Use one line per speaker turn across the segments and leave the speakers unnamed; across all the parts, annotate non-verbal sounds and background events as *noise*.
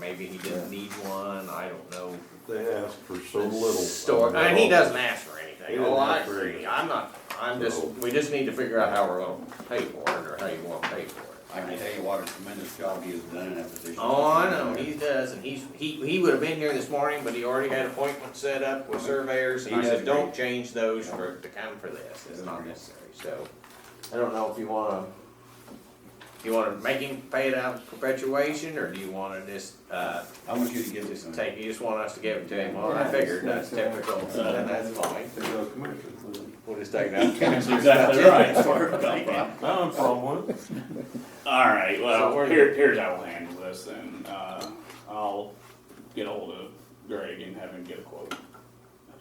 maybe he didn't need one, I don't know.
They ask for so little.
Store, and he doesn't ask for anything,
He
oh,
doesn't
I
ask for
agree,
anything.
I'm not, I'm just,
No.
we just need to figure out how we're gonna pay for it, or how you wanna pay for it.
I can tell you what a tremendous job he has done in that position.
Oh, I know, he does, and he's, he, he would've been here this morning, but he already had appointments set up with surveyors, and
He
I said,
does
don't
great.
change those for, to come for this, it's
Does
not
great.
necessary, so. I don't know if you wanna, you wanna make him pay it out of perpetuation, or do you wanna just, uh,
I want you to give this one.
take, you just want us to give it to him, well, I figured, that's typical, so then that's fine.
They go commercial.
We'll just take it out of
That's
council.
exactly right. Sorry about that.
I don't have a problem with it.
All right, well,
So we're-
here, here's how we'll handle this then. Uh, I'll get hold of Greg and have him get a quote.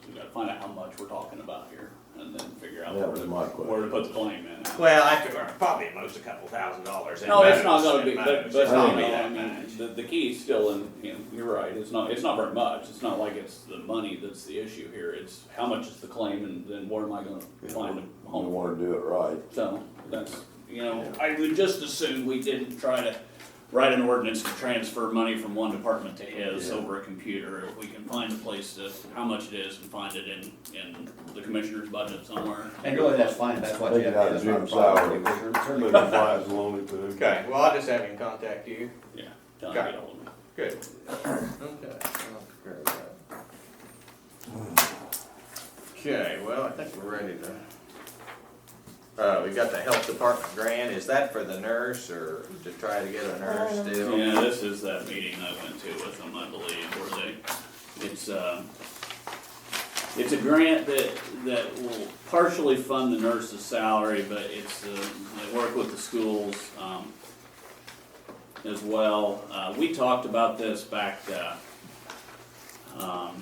We gotta find out how much we're talking about here and then figure out
That
where
was
to,
my
where to
question.
put the blame in.
Well, I figure probably at most a couple thousand dollars. in
No, it's not
bonus,
gonna
in
be, but,
bonus.
but,
It's not gonna be
no, I
that
mean,
much.
the, the key's still in, you know, you're right, it's not, it's not very much. It's not like it's the money that's the issue here. It's how much is the claim and then where am I gonna find a
You
home for?
wanna do it right.
So that's, you know, I would just assume we didn't try to write an ordinance to transfer money from one department to his
Yeah.
over a computer. If we can find a place to, how much it is and find it in, in the commissioner's budget somewhere.
And really, that's fine, that's what you
Take
have.
it
to
out
do.
of
That's not a
Jim's
problem.
salary.
We're
*laughs* Maybe
concerned.
five's lonely too.
Okay, well, I'll just have him contact you.
Yeah, tell him to get hold of me.
Good. Okay. I'll prepare that. Okay, well, I think we're ready to. Uh, we got the health department grant. Is that for the nurse or to try to get a nurse still?
Yeah, this is that meeting I went to with them, I believe, where they, it's, uh, it's a grant that, that will partially fund the nurse's salary, but it's, uh, they work with the schools, um, as well. Uh, we talked about this back, uh, um,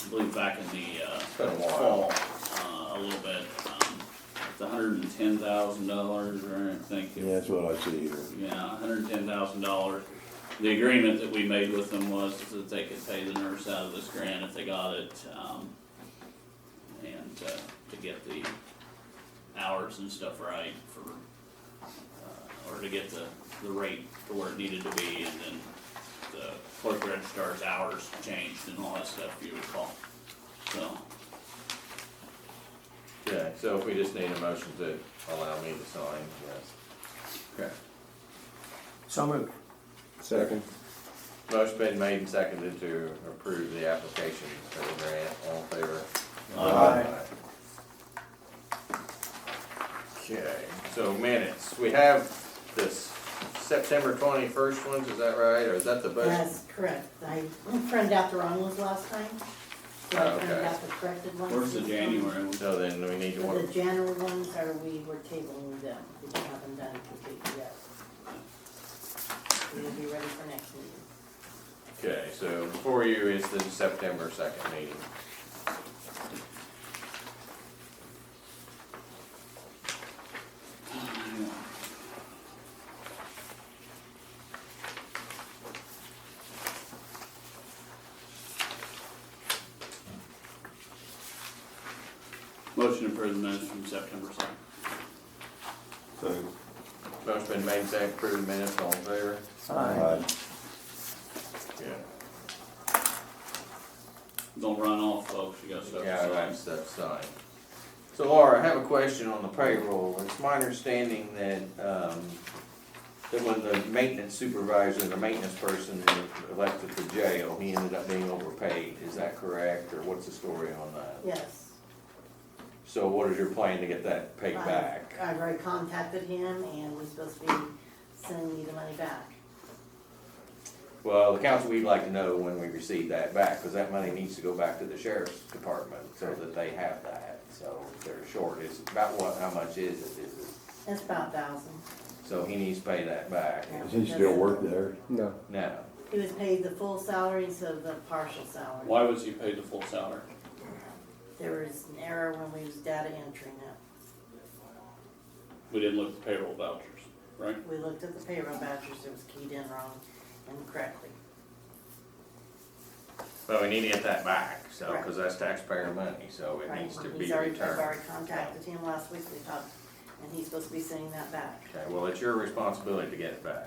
I believe back in the, uh,
It's been a while.
fall, uh, a little bit. Um, It's hundred and ten thousand dollars, or I think it
Yeah, that's what I see here.
yeah, hundred and ten thousand dollars. The agreement that we made with them was that they could pay the nurse out of this grant if they got it, um, and, uh, to get the hours and stuff right for, uh, or to get the, the rate to where it needed to be, and then the clerk registrar's hours changed and all that stuff, if you recall. So,
Okay, so if we just need a motion to allow me to sign, yes. Okay.
So moved.
Second.
Motion been made and seconded to approve the application for the grant, all in favor?
uh,
Aye.
Okay, so minutes, we have this September twenty-first ones, is that right, or is that the budget?
That's correct. I printed out the wrong ones last time. So
Oh,
I printed
okay.
out the corrected ones.
where's the January one?
So then we need to
The
work,
January ones are, we were tabling them. We haven't done completely yet. We'll be ready for next meeting.
okay, so before you is the September second meeting.
Motion to approve the minutes from September second.
Second.
Motion been made, and seconded, approve the minutes, all in favor?
Aye.
Yeah.
Don't run off, folks, you got stuff to
Yeah,
sign.
that's, that's signed. So Laura, I have a question on the payroll, it's my understanding that, um, that when the maintenance supervisor, the maintenance person left at the jail, he ended up being overpaid, is that correct, or what's the story on that?
Yes.
So what is your plan to get that paid
I-
back?
I've already contacted him and he's supposed to be sending me the money back.
Well, the council, we'd like to know when we receive that back, because that money needs to go back to the sheriff's department, so that they have that, so if they're short, is, about what, how much is it, is it
That's about a thousand.
So he needs to pay that back.
Does he still work there?
No.
No,
He was paid the full salary instead of the partial salary.
Why was he paid the full salary?
There was an error when we was data entering it.
We didn't look at the payroll vouchers, right?
We looked at the payroll vouchers, it was keyed in wrong and correctly.
but we need to get that back, so, because that's taxpayer money, so it
Right.
needs to be
He's already- I've
returned.
already contacted him last week, we talked, and he's supposed to be sending that back.
Okay, well, it's your responsibility to get it back.